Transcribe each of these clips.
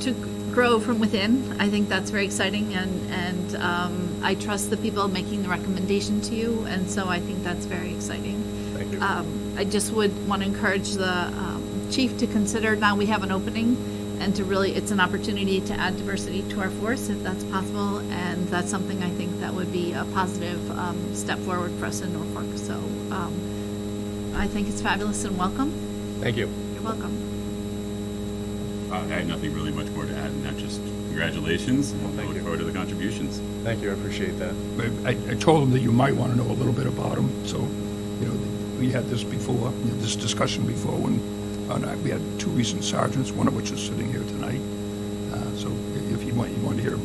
to grow from within. I think that's very exciting, and and um, I trust the people making the recommendation to you, and so I think that's very exciting. Thank you. Um, I just would want to encourage the um, chief to consider now we have an opening, and to really it's an opportunity to add diversity to our force if that's possible, and that's something I think that would be a positive um, step forward for us in Norfolk. So. Um, I think it's fabulous and welcome. Thank you. You're welcome. Uh, I have nothing really much more to add, and that just congratulations, and I Thank look you. forward to the contributions. Thank you. I appreciate that. I, I told him that you might want to know a little bit about him, so, you know, we had this before, we had this discussion before, when, on, uh, we had two recent sergeants, one of which is sitting here tonight. Uh, So i- if you want, you want to hear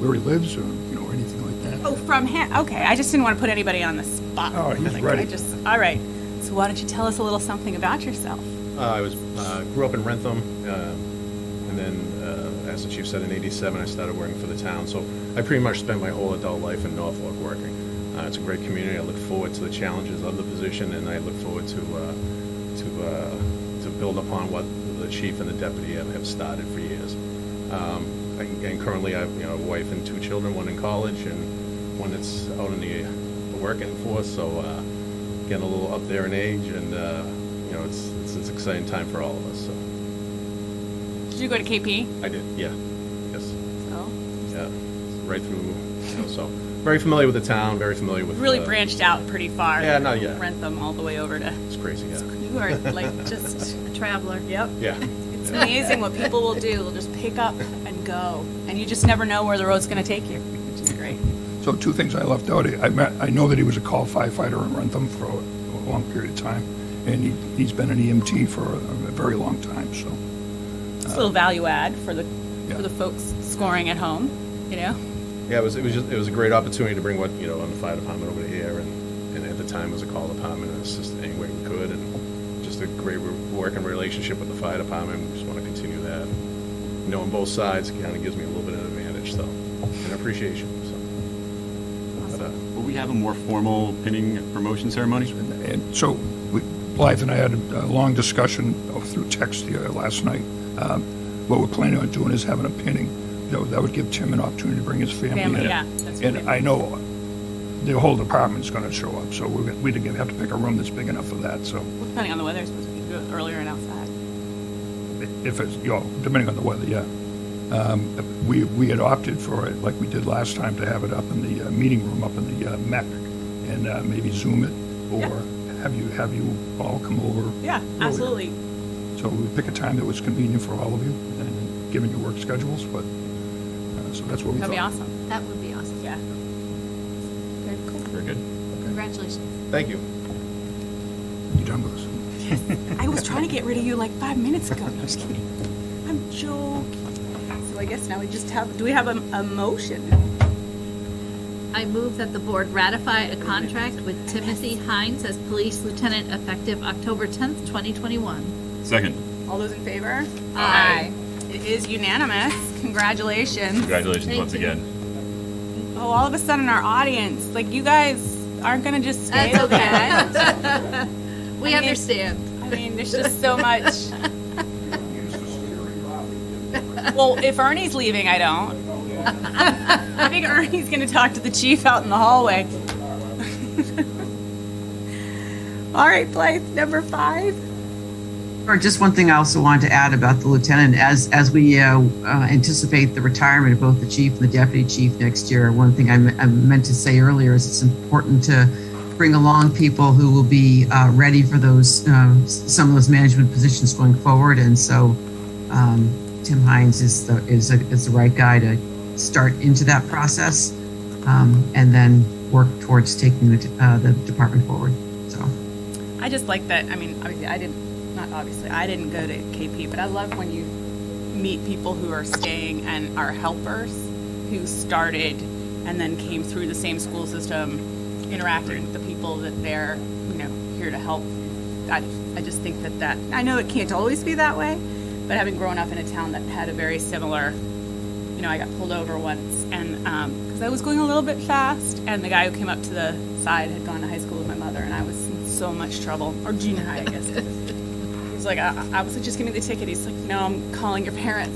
where he lives, or, you know, or anything like that. Oh, from him. Okay, I just didn't want to put anybody on the spot. Oh, he's Like, I ready. just, all right. So why don't you tell us a little something about yourself? Uh, I was uh, grew up in Rentham, um, and then, uh, as the chief said, in '87 I started working for the town. So I pretty much spent my whole adult life in Norfolk working. Uh, it's a great community. I look forward to the challenges of the position, and I look forward to uh, to uh, to build upon what the chief and the deputy have, have started for years. Um, I, and currently, I have you know, a wife and two children, one in college and one that's out in the working force. So uh, getting a little up there in age, and uh, you know, it's, it's it's an exciting time for all of us. So Did you go to KP? I did, yeah, yes, So yeah, right through. You know, so very familiar with the town, very familiar with. really uh, branched out pretty far. Yeah, not yet. Rent them all the way over to. It's crazy, yeah, You are like just. A traveler. Yep. yeah. It's amazing what people will do. They'll just pick up and go, and you just never know where the road's going to take you, which is great. So two things I left out, I met, I know that he was a call firefighter in Rentham for a long period of time, and he, he's been an EMT for a a very long time, so. It's a little value add for the Yeah. for the folks scoring at home. You know. Yeah, it was, it was just, it was a great opportunity to bring what, you know, on the fire department over here, and, and at the time it was a call department, and assist any way we could, and just a great re- working relationship with the fire department, we just want to continue that. Knowing both sides kind of gives me a little bit of an advantage, so, and appreciation, so. But, uh, Will we have a more formal pinning promotion ceremony? And so we- Blythe and I had a long discussion of- through text the, uh, last night. Um, What we're planning on doing is having a pinning. That would- that would give Tim an opportunity to bring his family in. Family, yeah, that's And really- I know the whole department's going to show up, so we're, gonna- we'd have to pick a room that's big enough for that, so Well, depending on the weather, it's supposed to be good earlier and outside. if it's, you know, depending on the weather, yeah. Um, We, we had opted for it, like we did last time, to have it up in the uh, meeting room, up in the uh, MEC, and uh, maybe Zoom it, or have you, have you all come over? Yeah, earlier. absolutely. So we pick a time that was convenient for all of you, and given your work schedules, but, uh, so that's what we thought. That'd be awesome. That would be awesome. Yeah. Very cool. Very good. Congratulations. Thank you. You done with us? I was trying to get rid of you like five minutes ago. No, just kidding. I'm joking. So I guess now we just have, do we have a, a motion? I move that the board ratify a contract with Timothy Hines as police lieutenant effective October 10th, 2021. Second, All those in favor? Aye. It is unanimous. Congratulations. congratulations Thank once you. again. Oh, all of a sudden our audience, like you guys aren't gonna just stay. That's okay. at that. We I mean- understand. I mean, there's just so much. Well, if Ernie's leaving, I don't. I think Ernie's gonna talk to the chief out in the hallway. All right, Blythe, number five. Or just one thing I also wanted to add about the lieutenant, as, as we uh, uh, anticipate the retirement of both the chief and the deputy chief next year, one thing I me- I meant to say earlier is it's important to bring along people who will be uh, ready for those, um, s- some of those management positions going forward. And so um, Tim Hines is the, is, a- is the right guy to start into that process um, and then work towards taking the, d- uh, the department forward, so. I just like that. I mean, obviously, I didn't, not obviously, I didn't go to KP, but I love when you meet people who are staying and are helpers who started and then came through the same school system, interacting with the people that they're, you know, here to help. I, I just think that that, I know it can't always be that way, but having grown up in a town that had a very similar you know, I got pulled over once, and because I was going a little bit fast, and the guy who came up to the side had gone to high school with my mother, and I was in so much trouble, "Uh, or junior high, I guess. He's like, I, I was like, just give me the ticket. He's like, no, I'm calling your parents.